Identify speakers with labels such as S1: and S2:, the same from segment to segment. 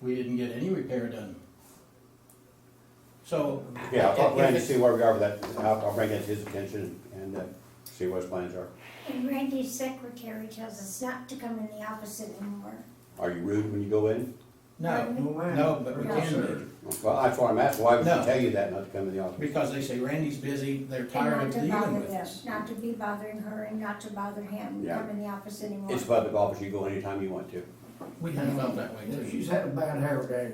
S1: we didn't get any repair done. So.
S2: Yeah, I'll
S1: if-
S2: talk to Randy,
S1: if
S2: see where we are with that, I'll, I'll bring that to his attention and, uh, see what his plans are.
S3: And Randy's secretary tells us not to come in the office anymore.
S2: Are you rude when you go in?
S1: No,
S4: Oh,
S1: no, but we can be,
S2: Well, that's why I'm asking, why would she
S1: No.
S2: tell you that not to come in the office?
S1: because they say Randy's busy, they're tired of
S3: And not to
S1: dealing
S3: bother
S1: with
S3: them,
S1: us.
S3: not to be bothering her and not to bother him,
S2: Yeah.
S3: come in the office anymore.
S2: It's public office, you go anytime you want to.
S1: We kind of felt that way
S4: Yeah,
S1: too.
S4: She's had a bad hair day.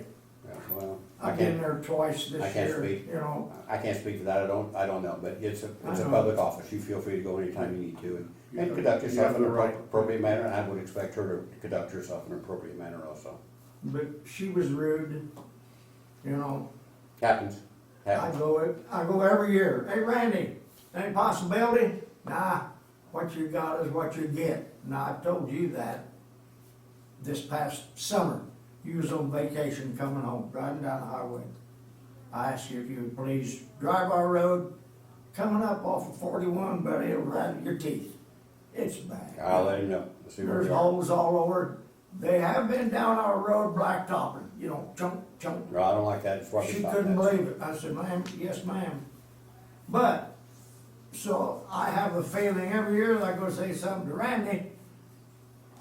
S2: Yeah, Well, I
S4: I've been
S2: can't,
S4: there twice
S2: I
S4: this
S2: can't
S4: year,
S2: speak.
S4: you know.
S2: I can't speak to that, I don't, I don't know, but it's a, it's
S4: I
S2: a
S4: know.
S2: public office, you feel free to go anytime you need to and,
S5: You
S2: and
S5: have-
S2: conduct
S5: you
S2: yourself
S5: have
S2: in an
S5: the right.
S2: appro- appropriate manner, and I would expect her to conduct herself in an appropriate manner also.
S4: But she was rude, you know.
S2: Happens,
S4: I
S2: happens.
S4: go, ev- I go every year, hey Randy, any possibility? Nah, what you got is what you get. Now, I told you that this past summer. You was on vacation coming home, driving down the highway. I asked you if you would please drive our road, coming up off of forty-one, but it'll rattle your teeth. It's bad.
S2: I'll let him know, see where
S4: There's
S2: we are.
S4: holes all over. They have been down our road blacktopping, you know, chunk, chunk.
S2: No, I don't like that, it's what we
S4: She
S2: thought
S4: couldn't
S2: that.
S4: believe it. I said, ma'am, yes, ma'am. But, so I have a feeling every year that I go say something to Randy,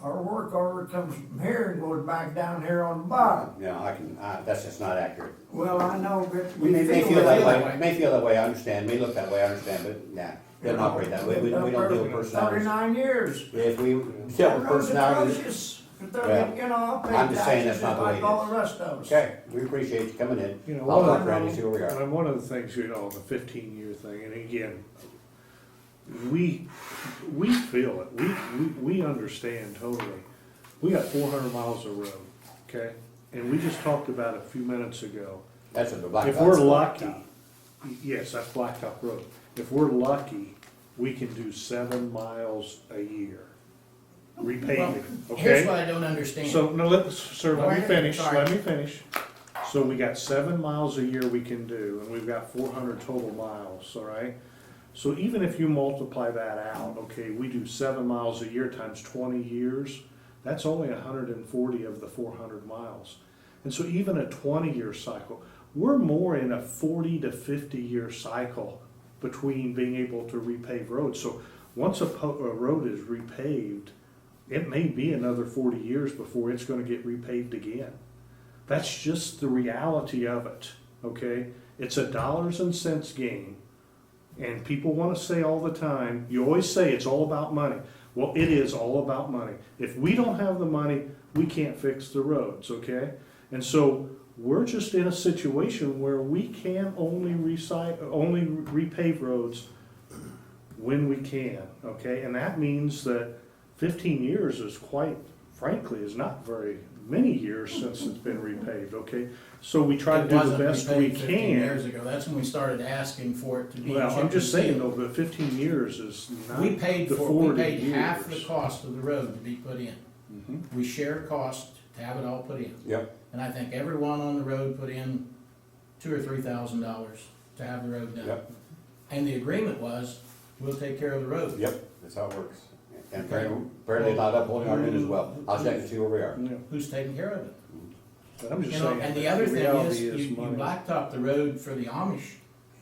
S4: our work order comes from here and goes back down here on the bottom.
S2: Yeah, I can, I, that's just not accurate.
S4: Well, I know, but
S2: We
S4: we
S2: may, may
S4: feel
S2: feel that
S4: that.
S2: way, may feel that way, I understand, may look that way, I understand, but nah, doesn't operate that way, we, we don't deal with personalities.
S4: Thirty-nine years.
S2: If we dealt with
S4: That road's
S2: personalities,
S4: atrocious. They're-
S2: Well,
S4: You know, I pay
S2: I'm just saying
S4: taxes
S2: that's not the way
S4: like
S2: it
S4: all
S2: is.
S4: the rest of us.
S2: okay, we appreciate you coming in.
S5: You know,
S2: I'll
S5: one
S2: talk
S5: of
S2: to Randy, see where we are.
S5: And one of the things, you know, the fifteen year thing, and again, we, we feel it, we, we, we understand totally. We got four hundred miles of road, okay? And we just talked about a few minutes ago.
S2: That's a black.
S5: If we're lucky, yes, that's Blacktop Road. If we're lucky, we can do seven miles a year repaving,
S1: Well,
S5: okay?
S1: Here's what I don't understand.
S5: So, no, let, sir,
S1: Go
S5: let me
S1: ahead,
S5: finish,
S1: sorry.
S5: let me finish. So we got seven miles a year we can do, and we've got four hundred total miles, all right? So even if you multiply that out, okay, we do seven miles a year times twenty years, that's only hundred and forty of the four hundred miles. And so even a twenty-year cycle, we're more in a forty to fifty-year cycle between being able to repave roads. So once a, po- a road is repaved, it may be another forty years before it's gonna get repaved again. That's just the reality of it, okay? It's a dollars and cents game. And people want to say all the time, you always say it's all about money. Well, it is all about money. If we don't have the money, we can't fix the roads, okay? And so we're just in a situation where we can only recite, only repave roads when we can, okay? And that means that fifteen years is quite, frankly, is not very many years since it's been repaved, okay? So we try to
S1: It
S5: do the
S1: wasn't
S5: best we
S1: repaved
S5: can.
S1: 15 Years ago, that's when we started asking for it to be.
S5: Well, I'm
S1: chipped
S5: just
S1: and
S5: saying though,
S1: sealed.
S5: but fifteen years is not
S1: We paid
S5: the
S1: for, we
S5: forty
S1: paid half the
S5: years.
S1: cost of the road to be put in.
S5: Mhm.
S2: Mm-hmm.
S1: We share cost to have it all put in.
S2: Yep,
S1: And I think everyone on the road put in two or three thousand dollars to have the road done.
S2: Yep.
S1: And the agreement was, we'll take care of the road.
S2: yep, that's how it works. And
S1: Okay.
S2: apparently- apparently not upholding our end as well, I'll check and see where we are.
S5: Yeah,
S1: Who's taking care of it?
S5: But I'm
S1: You
S5: just
S1: know,
S5: saying.
S1: and the
S5: that
S1: other thing is,
S5: reality
S1: you, you
S5: money.
S1: blacktop the road for the Amish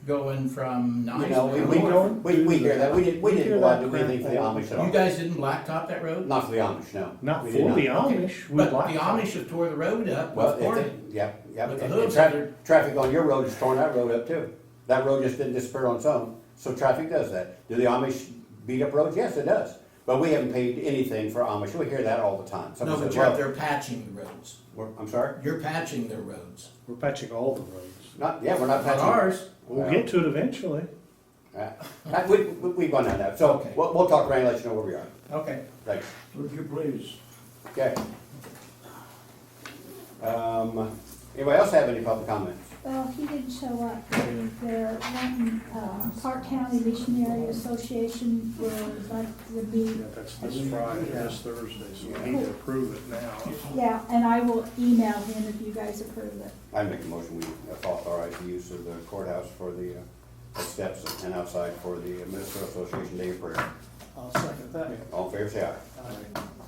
S1: going from
S2: You know, we,
S1: Niceville.
S2: we,
S5: don't
S2: we, we
S5: do
S2: hear that, we didn't, we
S5: We
S2: didn't
S5: hear
S2: go out
S5: that
S2: and do anything for the
S5: crap all
S2: Amish at
S1: You
S2: all.
S1: guys didn't blacktop that road?
S2: Not for the Amish, no.
S5: Not
S2: We
S5: for
S2: did
S5: the
S2: not.
S5: Amish, we
S1: But the
S5: blacked.
S1: Amish have tore the road up
S2: Well,
S1: with
S2: if
S1: corn.
S2: they, yep, yep,
S1: With the
S2: and, and
S1: hooves,
S2: traffic,
S1: they're-
S2: traffic on your road is torn that road up too. That road just didn't disappear on its own, so traffic does that. Do the Amish beat up roads? Yes, it does. But we haven't paid anything for Amish, we hear that all the time.
S1: No,
S2: Somebody
S1: but
S2: says,
S1: you're,
S2: well,
S1: they're patching the roads.
S2: we're- I'm sorry?
S1: You're patching their roads.
S5: We're patching all the roads.
S2: Not, yeah, we're
S1: Not
S2: not patching.
S1: ours.
S5: We'll
S2: Well-
S5: get to it eventually.
S2: Uh, uh, We, we, we've gone down that, so
S1: Okay.
S2: we'll, we'll talk, Randy, let you know where we are.
S1: Okay.
S2: Thanks.
S4: Would you please?
S2: Okay. Um, anybody else have any public comments?
S6: Well, he didn't show up to their, um, uh, Park County Missionary Association was like the meeting.
S5: Yeah, That's this Friday, this Thursday, so we need to approve it now.
S6: Yeah, and I will email him if you guys approve it.
S2: I make a motion, we authorize the use of the courthouse for the, uh, the steps and outside for the Minnesota Association Day of Prayer.
S5: I'll second that.
S2: All in favor, say aye.